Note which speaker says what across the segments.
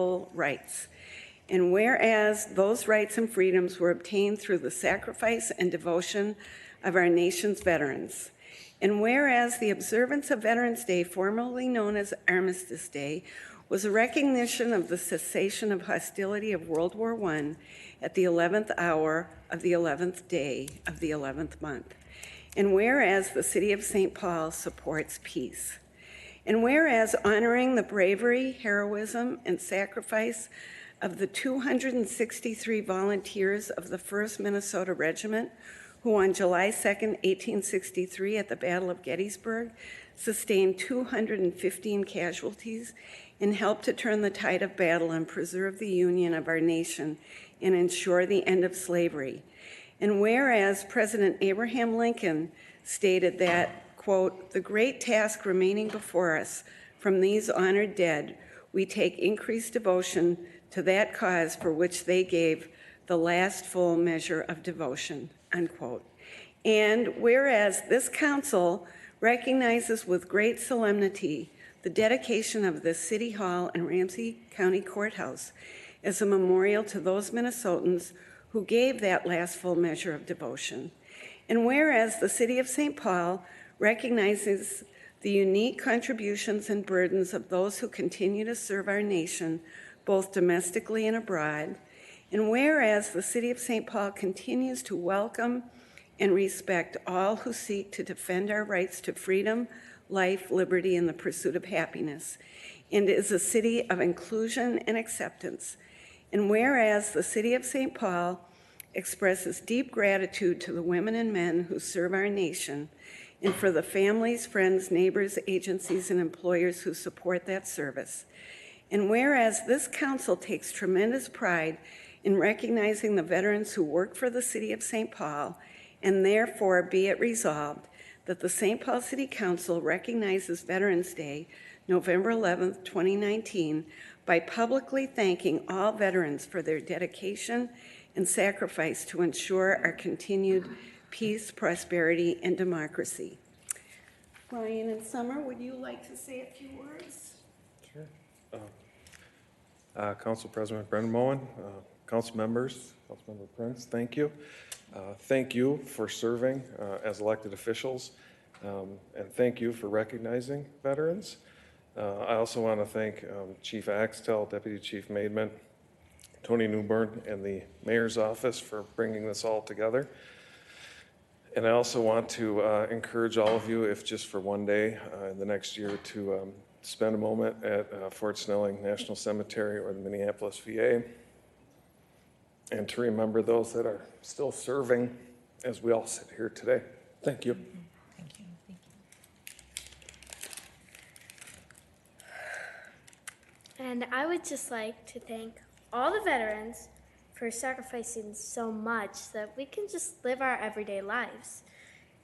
Speaker 1: full rights. And whereas those rights and freedoms were obtained through the sacrifice and devotion of our nation's veterans. And whereas the observance of Veterans Day, formerly known as Armistice Day, was a recognition of the cessation of hostility of World War I at the 11th hour of the 11th day of the 11th month. And whereas the City of St. Paul supports peace. And whereas honoring the bravery, heroism, and sacrifice of the 263 volunteers of the 1st Minnesota Regiment, who on July 2nd, 1863, at the Battle of Gettysburg, sustained 215 casualties and helped to turn the tide of battle and preserve the union of our nation and ensure the end of slavery. And whereas President Abraham Lincoln stated that, quote, "The great task remaining before us from these honored dead, we take increased devotion to that cause for which they gave the last full measure of devotion," unquote. And whereas this council recognizes with great solemnity the dedication of the City Hall and Ramsey County Courthouse as a memorial to those Minnesotans who gave that last full measure of devotion. And whereas the City of St. Paul recognizes the unique contributions and burdens of those who continue to serve our nation, both domestically and abroad, and whereas the City of St. Paul continues to welcome and respect all who seek to defend our rights to freedom, life, liberty, and the pursuit of happiness, and is a city of inclusion and acceptance. And whereas the City of St. Paul expresses deep gratitude to the women and men who serve our nation, and for the families, friends, neighbors, agencies, and employers who support that service. And whereas this council takes tremendous pride in recognizing the veterans who work for the City of St. Paul, and therefore be it resolved that the St. Paul City Council recognizes Veterans Day, November 11th, 2019, by publicly thanking all veterans for their dedication and sacrifice to ensure our continued peace, prosperity, and democracy. Ryan and Summer, would you like to say a few words?
Speaker 2: Sure. Uh, Council President Brendan Moen, uh, council members, Councilmember Prince, thank you. Uh, Thank you for serving uh, as elected officials, um, and thank you for recognizing veterans. Uh, I also want to thank um, Chief Axtell, Deputy Chief Maidment, Tony Newburn, and the mayor's office for bringing this all together. And I also want to uh, encourage all of you, if just for one day uh, in the next year, to um, spend a moment at uh, Fort Snelling National Cemetery or the Minneapolis VA, and to remember those that are still serving as we all sit here today. Thank you.
Speaker 3: Thank you, thank you.
Speaker 4: And I would just like to thank all the veterans for sacrificing so much that we can just live our everyday lives.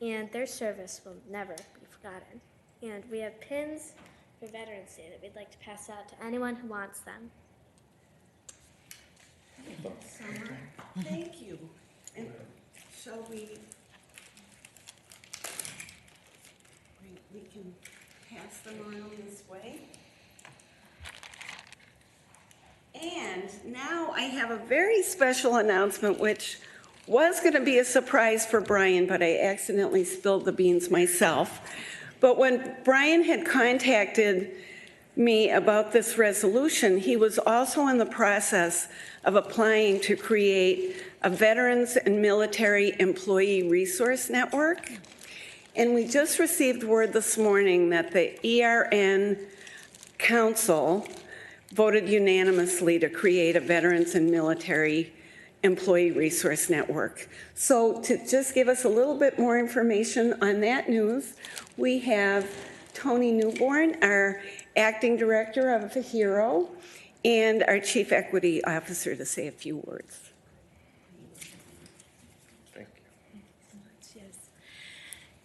Speaker 4: And their service will never be forgotten. And we have pins for Veterans Day that we'd like to pass out to anyone who wants them.
Speaker 1: Thank you. And shall we? we- We can pass them around this way. And now I have a very special announcement, which was going to be a surprise for Brian, but I accidentally spilled the beans myself. But when Brian had contacted me about this resolution, he was also in the process of applying to create a Veterans and Military Employee Resource Network. And we just received word this morning that the ERN Council voted unanimously to create a Veterans and Military Employee Resource Network. So to just give us a little bit more information on that news, we have Tony Newborn, our Acting Director of HERO, and our Chief Equity Officer to say a few words.
Speaker 2: Thank you.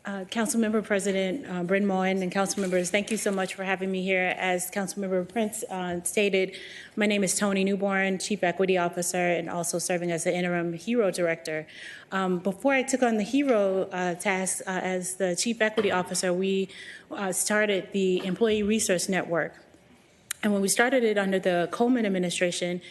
Speaker 5: Uh, Councilmember President uh, Bryn Moen and council members, thank you so much for having me here. As Councilmember Prince uh, stated, my name is Tony Newborn, Chief Equity Officer, and also serving as the interim HERO Director. Um, Before I took on the HERO uh, task uh, as the Chief Equity Officer, we uh, started the Employee Resource Network. And when we started it under the Coleman administration,